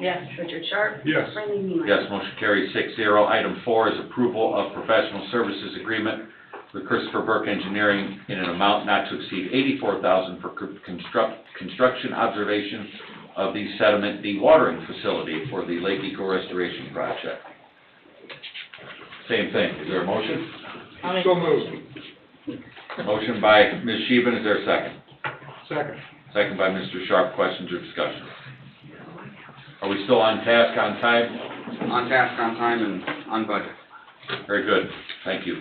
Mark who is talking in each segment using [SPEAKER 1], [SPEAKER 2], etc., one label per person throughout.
[SPEAKER 1] Yes.
[SPEAKER 2] Richard Sharp.
[SPEAKER 3] Yes.
[SPEAKER 2] Randy Neiman.
[SPEAKER 4] Yes, motion carries six zero. Item four is approval of professional services agreement with Christopher Burke Engineering in an amount not to exceed eighty-four thousand for co- construct, construction observation of the sediment dewatering facility for the Lake Eco Restoration Project. Same thing. Is there a motion?
[SPEAKER 1] I'll make-
[SPEAKER 3] So moved.
[SPEAKER 4] Motion by Ms. Sheehan. Is there a second?
[SPEAKER 3] Second.
[SPEAKER 4] Second by Mr. Sharp. Questions or discussion? Are we still on task, on time?
[SPEAKER 5] On task, on time, and on budget.
[SPEAKER 4] Very good, thank you.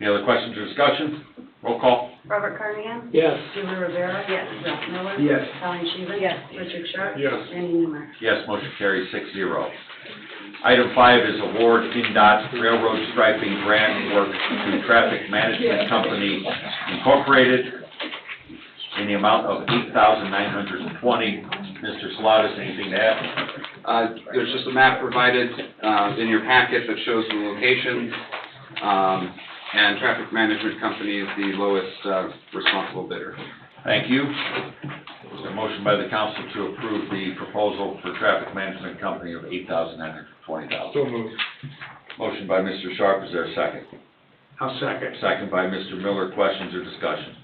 [SPEAKER 4] Any other questions or discussion? Roll call.
[SPEAKER 2] Robert Carnahan.
[SPEAKER 3] Yes.
[SPEAKER 2] Julie Rivera. Yes. Ralph Miller.
[SPEAKER 3] Yes.
[SPEAKER 2] Alan Sheehan.
[SPEAKER 1] Yes.
[SPEAKER 2] Richard Sharp.
[SPEAKER 3] Yes.
[SPEAKER 2] Randy Neiman.
[SPEAKER 4] Yes, motion carries six zero. Item five is award NDOT railroad striping grant work to Traffic Management Company Incorporated in the amount of eight thousand nine hundred and twenty. Mr. Salatas, anything to add?
[SPEAKER 5] Uh, There's just a map provided uh, in your packet that shows the locations, um, and Traffic Management Company is the lowest uh, responsible bidder.
[SPEAKER 4] Thank you. Is there a motion by the council to approve the proposal for Traffic Management Company of eight thousand nine hundred and twenty dollars?
[SPEAKER 3] So moved.
[SPEAKER 4] Motion by Mr. Sharp, is there a second?
[SPEAKER 3] I'll second.
[SPEAKER 4] Second by Mr. Miller, questions or discussion?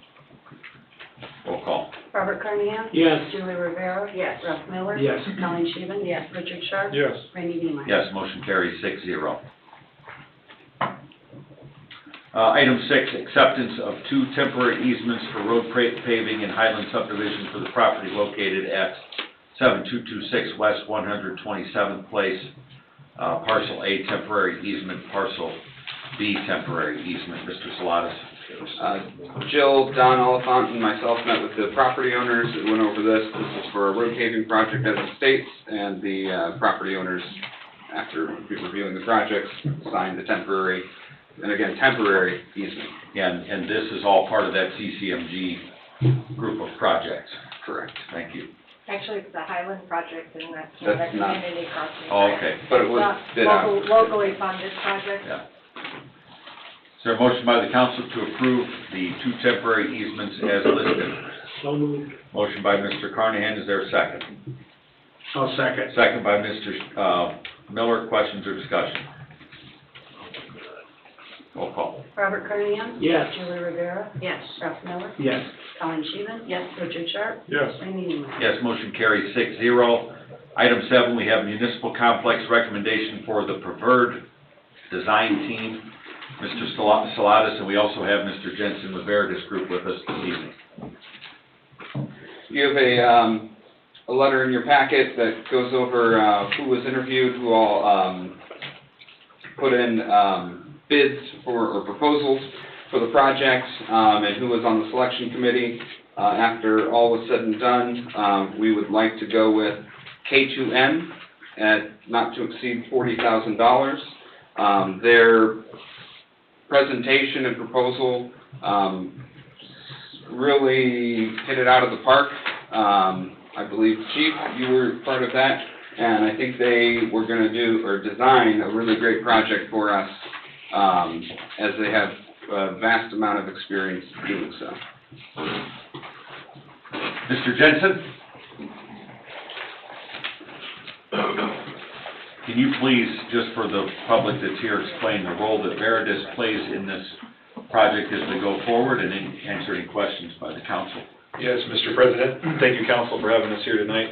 [SPEAKER 4] Roll call.
[SPEAKER 2] Robert Carnahan.
[SPEAKER 3] Yes.
[SPEAKER 2] Julie Rivera. Yes. Ralph Miller.
[SPEAKER 3] Yes.
[SPEAKER 2] Alan Sheehan. Yes. Richard Sharp.
[SPEAKER 3] Yes.
[SPEAKER 2] Randy Neiman.
[SPEAKER 4] Yes, motion carries six zero. Uh, item six, acceptance of two temporary easements for road pra- paving in Highland subdivision for the property located at seven two two six West one hundred twenty-seventh Place, uh, parcel A temporary easement, parcel B temporary easement, Mr. Salatas.
[SPEAKER 5] Uh, Jill, Don Oliphant, and myself met with the property owners and went over this. This is for a road paving project as it states, and the uh, property owners, after reviewing the projects, signed the temporary, and again, temporary easement.
[SPEAKER 4] And, and this is all part of that CCMG group of projects.
[SPEAKER 5] Correct.
[SPEAKER 4] Thank you.
[SPEAKER 6] Actually, it's the Highland project and that's
[SPEAKER 5] That's
[SPEAKER 6] that's
[SPEAKER 5] not-
[SPEAKER 6] community crossing.
[SPEAKER 4] Oh,
[SPEAKER 6] right?
[SPEAKER 4] okay.
[SPEAKER 5] But it was
[SPEAKER 6] Not
[SPEAKER 5] bid out.
[SPEAKER 6] local- Locally funded project.
[SPEAKER 4] Yeah. Is there a motion by the council to approve the two temporary easements as listed?
[SPEAKER 3] So moved.
[SPEAKER 4] Motion by Mr. Carnahan, is there a second?
[SPEAKER 3] I'll second.
[SPEAKER 4] Second by Mr. uh, Miller, questions or discussion? Roll call.
[SPEAKER 2] Robert Carnahan.
[SPEAKER 3] Yes.
[SPEAKER 2] Julie Rivera.
[SPEAKER 1] Yes.
[SPEAKER 2] Ralph Miller.
[SPEAKER 3] Yes.
[SPEAKER 2] Alan Sheehan. Yes. Richard Sharp.
[SPEAKER 3] Yes.
[SPEAKER 2] Randy Neiman.
[SPEAKER 4] Yes, motion carries six zero. Item seven, we have municipal complex recommendation for the preferred design team, Mr. Sala- Salatas, and we also have Mr. Jensen Laverdis Group with us this evening.
[SPEAKER 5] You have a, um, a letter in your packet that goes over, uh, who was interviewed, who all, um, put in, um, bids for, or proposals for the project, um, and who was on the selection committee. Uh, after all was said and done, um, we would like to go with K2M at not to exceed forty thousand dollars. Um, their presentation and proposal, um, really hit it out of the park. Um, I believe, Chief, you were part of that, and I think they were gonna do, or design a really great project for us, um, as they have a vast amount of experience doing so.
[SPEAKER 4] Mr. Jensen? Can you please, just for the public that's here, explain the role that Veritas plays in this project as we go forward and then answer any questions by the council?
[SPEAKER 7] Yes, Mr. President, thank you, council, for having us here tonight.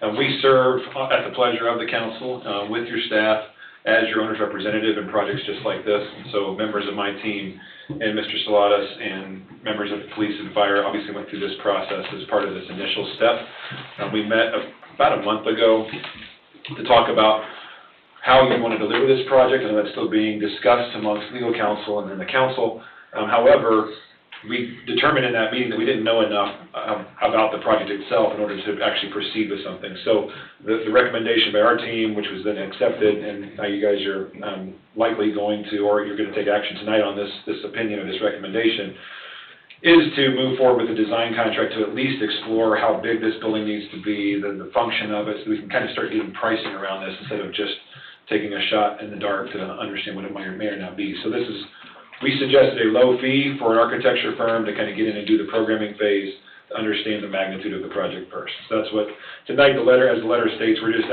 [SPEAKER 7] Uh, We serve at the pleasure of the council uh, with your staff as your owner's representative in projects just like this. And so members of my team and Mr. Salatas and members of the police and fire obviously went through this process as part of this initial step. Uh, We met about a month ago to talk about how you want to deliver this project, and that's still being discussed amongst legal counsel and then the council. Um, However, we determined in that meeting that we didn't know enough um, about the project itself in order to actually proceed with something. So the the recommendation by our team, which was then accepted, and now you guys are um, likely going to, or you're going to take action tonight on this, this opinion or this recommendation, is to move forward with the design contract to at least explore how big this building needs to be, the the function of it, so we can kind of start getting pricing around this instead of just taking a shot in the dark to understand what it might or may or not be. So this is we suggested a low fee for an architecture firm to kind of get in and do the programming phase, to understand the magnitude of the project first. So that's what, tonight, the letter, as the letter states, we're just